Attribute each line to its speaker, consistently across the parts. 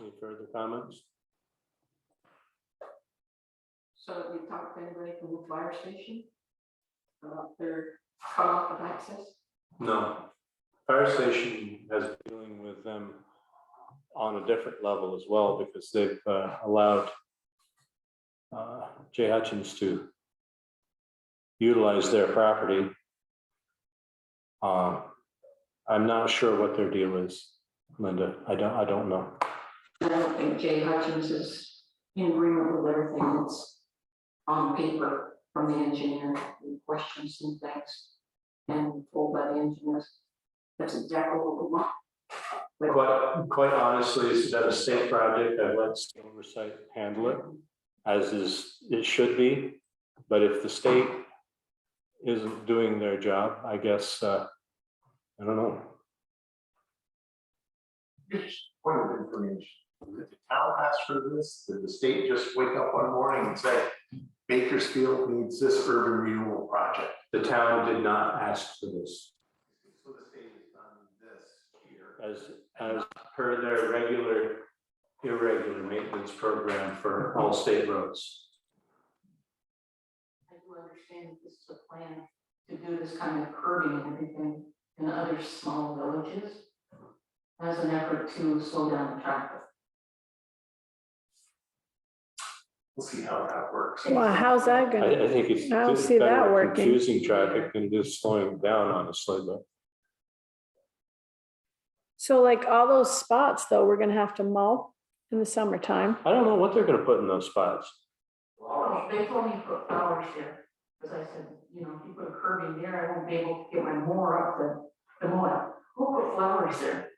Speaker 1: Any further comments?
Speaker 2: So have you talked to anybody from the fire station? About their cutoff of access?
Speaker 1: No. Fire station has been dealing with them on a different level as well because they've uh, allowed uh, Jay Hutchins to utilize their property. Um, I'm not sure what their deal is, Linda. I don't, I don't know.
Speaker 2: I don't think Jay Hutchins is in agreement with everything that's on paper from the engineer, the questions and things. And told by the engineers, that's exactly what we want.
Speaker 1: Quite, quite honestly, this is a state project. I let state oversight handle it as is, it should be. But if the state isn't doing their job, I guess, uh, I don't know.
Speaker 3: Just point of information, did the town ask for this? Did the state just wake up one morning and say Bakersfield needs this urban renewal project?
Speaker 1: The town did not ask for this.
Speaker 3: So the state has done this here.
Speaker 1: As, as per their regular, irregular maintenance program for all state roads.
Speaker 2: I do understand that this is a plan to do this kind of curbing and everything in other small villages as an effort to slow down the traffic.
Speaker 3: We'll see how that works.
Speaker 4: Well, how's that
Speaker 1: I,
Speaker 4: gonna,
Speaker 1: I think it's.
Speaker 4: I don't
Speaker 1: it's
Speaker 4: see that
Speaker 1: better
Speaker 4: working.
Speaker 1: Confusing traffic than just slowing down honestly, but
Speaker 4: so like all those spots though, we're gonna have to mow in the summertime.
Speaker 1: I don't know what they're gonna put in those spots.
Speaker 2: Oh, they told me to put flowers there, because I said, you know, if you put a curb in there, I won't be able to get my mower up the, the mower. Who put flowers there?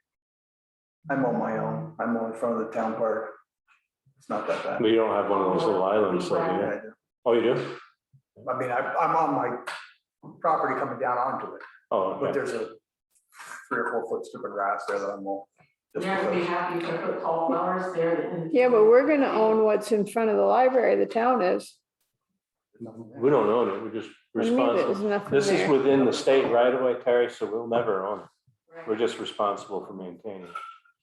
Speaker 5: I'm on my own. I'm on in front of the town park. It's not that bad.
Speaker 1: We don't have one of those little islands, so,
Speaker 5: I
Speaker 1: yeah.
Speaker 5: do.
Speaker 1: Oh, you do?
Speaker 5: I mean, I, I'm on my property coming down onto it,
Speaker 1: Oh,
Speaker 5: but
Speaker 1: okay.
Speaker 5: there's a three or four foot strip of grass there that I'm on. just
Speaker 2: Yeah, I'd be
Speaker 5: because.
Speaker 2: happy to put tall flowers there that. didn't-
Speaker 4: Yeah, but we're gonna own what's in front of the library, the town is.
Speaker 1: We don't own it, we're just
Speaker 4: What do you mean
Speaker 1: responsible.
Speaker 4: There's nothing
Speaker 1: This is
Speaker 4: there.
Speaker 1: within the state right away, Terry, so we'll never own it.
Speaker 2: Right.
Speaker 1: We're just responsible for maintaining it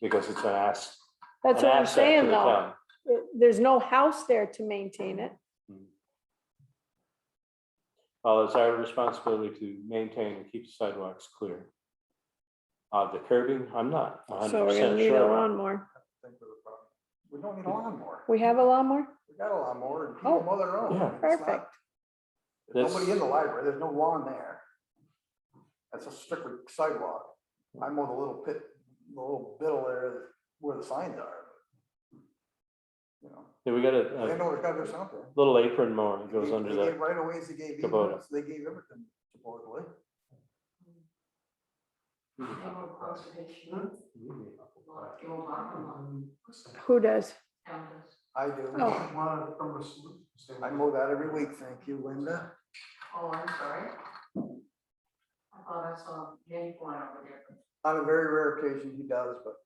Speaker 1: because it's an ass.
Speaker 4: That's
Speaker 1: an
Speaker 4: what I'm
Speaker 1: asset to
Speaker 4: saying
Speaker 1: the
Speaker 4: though.
Speaker 1: town.
Speaker 4: It- There's no house there to maintain it.
Speaker 1: Well, it's our responsibility to maintain and keep the sidewalks clear. Uh, the curbing, I'm not a hundred
Speaker 4: So we're gonna
Speaker 1: percent
Speaker 4: need a
Speaker 1: sure. on.
Speaker 4: lawnmower.
Speaker 5: We don't need a lawnmower.
Speaker 4: We have a lawnmower?
Speaker 5: We got a lawnmower and
Speaker 4: Oh,
Speaker 5: people mow their own.
Speaker 1: yeah.
Speaker 5: It's not-
Speaker 4: Perfect.
Speaker 5: There's
Speaker 1: That's-
Speaker 5: nobody in the library. There's no lawn there. That's a strictly sidewalk. I'm on the little pit, the little biddle there where the signs are. You know,
Speaker 1: Yeah, we got
Speaker 5: they
Speaker 1: a, a
Speaker 5: know there's gotta be something.
Speaker 1: little apron mower that goes
Speaker 5: They-
Speaker 1: under
Speaker 5: they
Speaker 1: that.
Speaker 5: gave Right away, they gave,
Speaker 1: Kubota.
Speaker 5: easements, they gave everything supposedly.
Speaker 2: They were conservation, lot, they were lot, and lot, and
Speaker 4: Who does?
Speaker 2: town does.
Speaker 5: I do.
Speaker 4: Oh.
Speaker 5: I mow that every week, thank you, Linda.
Speaker 2: Oh, I'm sorry. I thought I saw Jenny going over there.
Speaker 5: On a very rare occasion, he does, but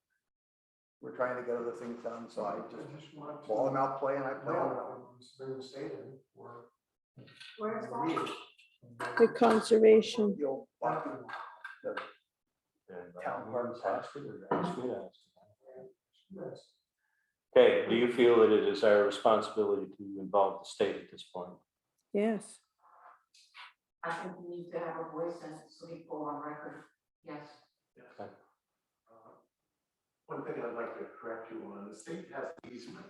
Speaker 5: we're trying to get other things done, so I just, while I'm out playing, I play on
Speaker 2: Where's that?
Speaker 4: The conservation.
Speaker 5: the old block, the town park
Speaker 1: That's good. Okay, do you feel that it is our responsibility to involve the state at this point?
Speaker 4: Yes.
Speaker 2: I think we need to have a voice and so people on record, yes.
Speaker 1: Okay.
Speaker 3: Uh, One thing I'd like to correct you on, the state has easement.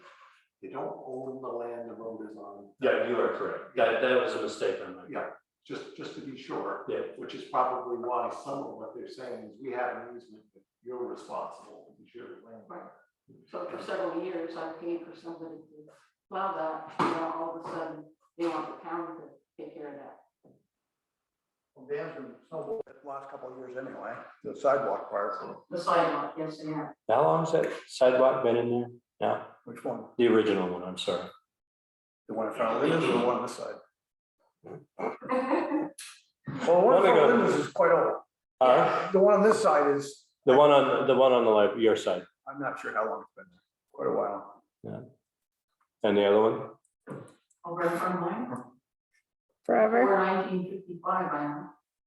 Speaker 3: They don't own the land the road is on.
Speaker 1: Yeah, you are correct. That, that was a mistake on my.
Speaker 3: Yeah, just, just to be sure,
Speaker 1: Yeah,
Speaker 3: which is probably why some of what they're saying is we have an easement, but you're responsible, it's your land.
Speaker 2: So for several years, I paid for somebody to plow that, and now all of a sudden, they want the town to take care of that.
Speaker 5: Dan's been snowballing the last couple of years anyway, the sidewalk part,
Speaker 2: The sidewalk, yes, they have.
Speaker 1: how long's that sidewalk been in there? No,
Speaker 5: which one?
Speaker 1: the original one, I'm sorry.
Speaker 5: The one in front of Linda's or the one on this side?
Speaker 2: Well,
Speaker 5: Well, the one in
Speaker 1: Let me
Speaker 5: front of
Speaker 1: go.
Speaker 5: Linda's is quite old.
Speaker 1: Uh,
Speaker 5: The one on this side is,
Speaker 1: the one on, the one on the left, your side,
Speaker 5: I'm not sure how long it's been, quite a while.
Speaker 1: and the other one?
Speaker 2: Over in front of mine,
Speaker 4: Forever?
Speaker 2: before nineteen fifty-five, I am.